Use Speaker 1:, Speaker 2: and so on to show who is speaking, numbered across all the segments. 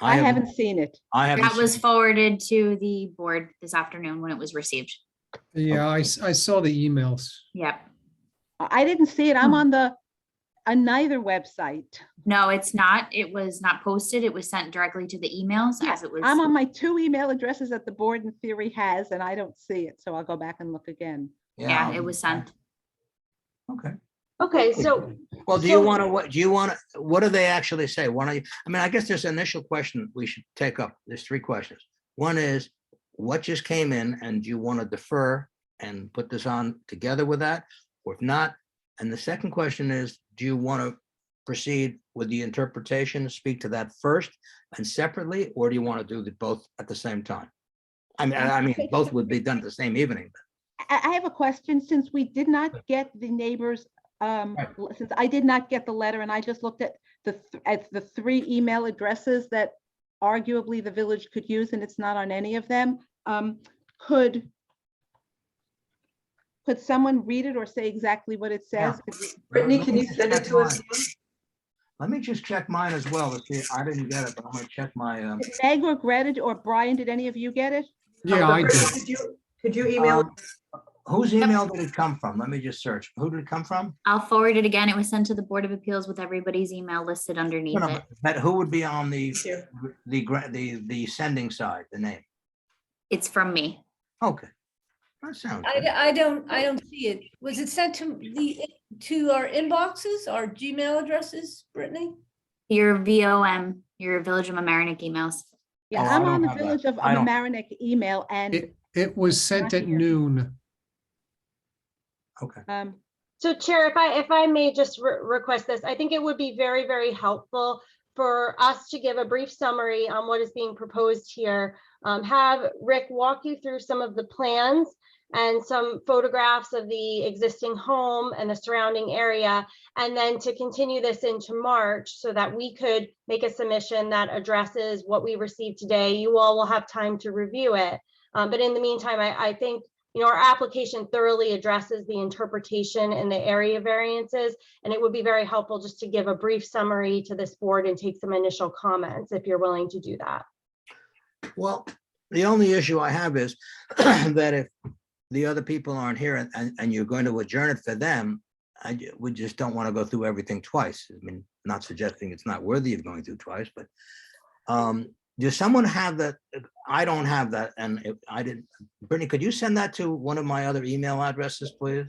Speaker 1: I
Speaker 2: have-
Speaker 1: haven't seen it.
Speaker 2: I haven't.
Speaker 3: That
Speaker 2: seen
Speaker 3: was
Speaker 2: it.
Speaker 3: forwarded to the board this afternoon when it was received.
Speaker 4: Yeah, I, s- I saw the emails.
Speaker 3: Yep.
Speaker 1: I I didn't see it. I'm
Speaker 3: Hmm.
Speaker 1: on the, on neither website.
Speaker 3: No, it's not. It was not posted. It was sent directly to the emails as it was.
Speaker 1: I'm on my two email addresses that the board in theory has, and I don't see it, so I'll go back and look again.
Speaker 3: Yeah, it was sent.
Speaker 2: Okay.
Speaker 5: Okay, so
Speaker 2: Well, do you
Speaker 5: So-
Speaker 2: want to, what, do you want to, what do they actually say? Why don't you, I mean, I guess this initial question we should take up, there's three questions. One is, what just came in and do you want to defer and put this on together with that? Or if not, and the second question is, do you want to proceed with the interpretation, speak to that first and separately? Or do you want to do the both at the same time? I mean, I I mean, both would be done the same evening.
Speaker 1: I, I have a question, since we did not get the neighbors, um,
Speaker 2: Right.
Speaker 1: l- since I did not get the letter and I just looked at the, th- at the three email addresses that arguably the village could use, and it's not on any of them, um, could could someone read it or say exactly what it
Speaker 2: Yeah.
Speaker 1: says?
Speaker 5: Brittany,
Speaker 2: Let
Speaker 5: can
Speaker 2: me
Speaker 5: you
Speaker 2: just
Speaker 5: send it
Speaker 2: check
Speaker 5: to us?
Speaker 2: mine. Let me just check mine as well. to see, I didn't get it, but I'm gonna check my, um,
Speaker 1: Did Meg or Greta or Brian, did any of you get it?
Speaker 4: Yeah, I
Speaker 5: Brittany,
Speaker 4: did.
Speaker 5: could you- Could you email?
Speaker 2: Um, whose email did it come from? Let me just search. Who did it come from?
Speaker 3: I'll forward it again. It was sent to the Board of Appeals with everybody's email listed underneath
Speaker 2: No,
Speaker 3: it.
Speaker 2: no, But who would be on the,
Speaker 5: Here.
Speaker 2: the, gra- the, the sending side, the name?
Speaker 3: It's from me.
Speaker 2: Okay. That sounds
Speaker 6: I,
Speaker 2: good.
Speaker 6: d- I don't, I don't see it. Was it sent to the, to our inboxes, our Gmail addresses, Brittany?
Speaker 3: Your VOM, your Village of Amerenik emails.
Speaker 1: Yeah,
Speaker 2: Oh, I
Speaker 1: I'm
Speaker 2: don't
Speaker 1: on the
Speaker 2: have that.
Speaker 1: Village of
Speaker 2: I don't-
Speaker 1: Amerenik email and,
Speaker 4: It, it was sent at
Speaker 1: here.
Speaker 4: noon.
Speaker 2: Okay.
Speaker 1: um,
Speaker 7: So Chair, if I, if I may just re- request this, I think it would be very, very helpful for us to give a brief summary on what is being proposed here. Um, Have Rick walk you through some of the plans and some photographs of the existing home and the surrounding area. And then to continue this into March so that we could make a submission that addresses what we received today. You all will have time to review it. Um, But in the meantime, I, I think you know, our application thoroughly addresses the interpretation and the area variances. And it would be very helpful just to give a brief summary to this board and take some initial comments if you're willing to do that.
Speaker 2: Well, the only issue I have is that if the other people aren't here and- and, and you're going to adjourn it for them, I, ju- we just don't want to go through everything twice. I mean, not suggesting it's not worthy of going through twice, but um, does someone have that? I don't have that, and if I didn't, Brittany, could you send that to one of my other email addresses, please?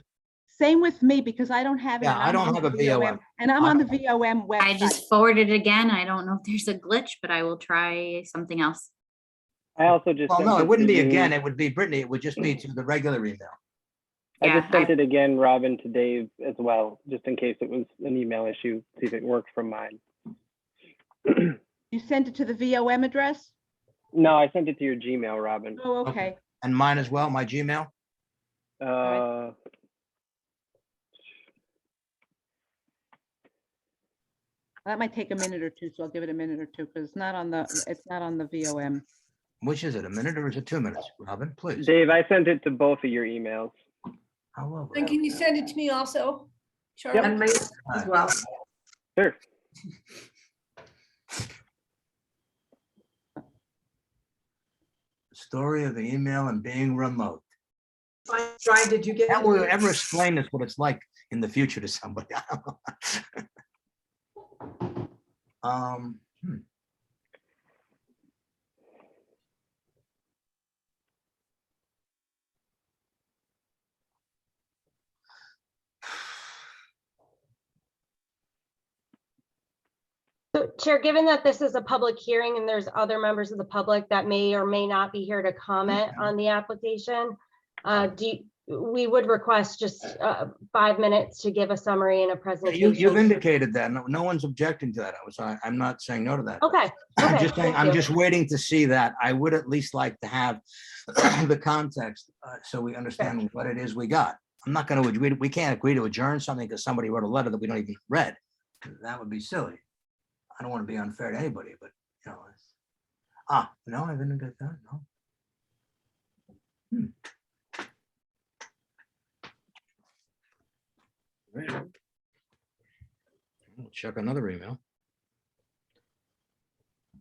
Speaker 1: Same with me because I don't have it.
Speaker 2: Yeah,
Speaker 1: and
Speaker 2: I
Speaker 1: I'm
Speaker 2: don't
Speaker 1: on
Speaker 2: have a
Speaker 1: the
Speaker 2: VOM.
Speaker 1: And I'm
Speaker 2: I
Speaker 1: on the
Speaker 2: don't
Speaker 1: VOM
Speaker 3: I
Speaker 1: website.
Speaker 3: just forwarded it again. I don't know if there's a glitch, but I will try something else.
Speaker 8: I also just.
Speaker 2: Well,
Speaker 8: sent
Speaker 2: no, it wouldn't
Speaker 8: to
Speaker 2: be
Speaker 8: you-
Speaker 2: again. It would be Brittany. It would just be to the regular email.
Speaker 8: I
Speaker 3: Yeah,
Speaker 8: just sent
Speaker 3: I-
Speaker 8: it again, Robin, to Dave as well, just in case it was an email issue, see if it worked from mine.
Speaker 1: You sent it to the VOM address?
Speaker 8: No, I sent it to your Gmail, Robin.
Speaker 1: Oh,
Speaker 2: Okay.
Speaker 1: okay.
Speaker 2: And mine as well, my Gmail.
Speaker 8: Uh,
Speaker 1: That might take a minute or two, so I'll give it a minute or two because it's not on the, it's not on the VOM.
Speaker 2: Which is it, a minute or is it two minutes? Robin, please.
Speaker 8: Dave, I sent it to both of your emails.
Speaker 2: How will
Speaker 6: And can you send it to me also? Charlie?
Speaker 5: And my, as well.
Speaker 8: Sure.
Speaker 2: Story of the email and being remote.
Speaker 5: Brian, did you get?
Speaker 2: That
Speaker 5: it?
Speaker 2: will ever explain this, what it's like in the future to somebody. I don't know. Um, hmm.
Speaker 7: So Chair, given that this is a public hearing and there's other members of the public that may or may not be here to comment on the application, uh, do, you- we would request just uh, five minutes to give a summary and a
Speaker 2: You,
Speaker 7: presentation.
Speaker 2: you've indicated that. No, no one's objecting to that. I was, I, I'm not saying no to that.
Speaker 7: Okay,
Speaker 2: I'm
Speaker 7: okay,
Speaker 2: just saying,
Speaker 7: thank
Speaker 2: I'm
Speaker 7: you.
Speaker 2: just waiting to see that. I would at least like to have the context, uh, so we understand what it is we got. I'm not gonna, we, we can't agree to adjourn something because somebody wrote a letter that we don't even read. That would be silly. I don't want to be unfair to anybody, but, you know. it's- Ah, no, I didn't get that, no. Hmm. Check another email.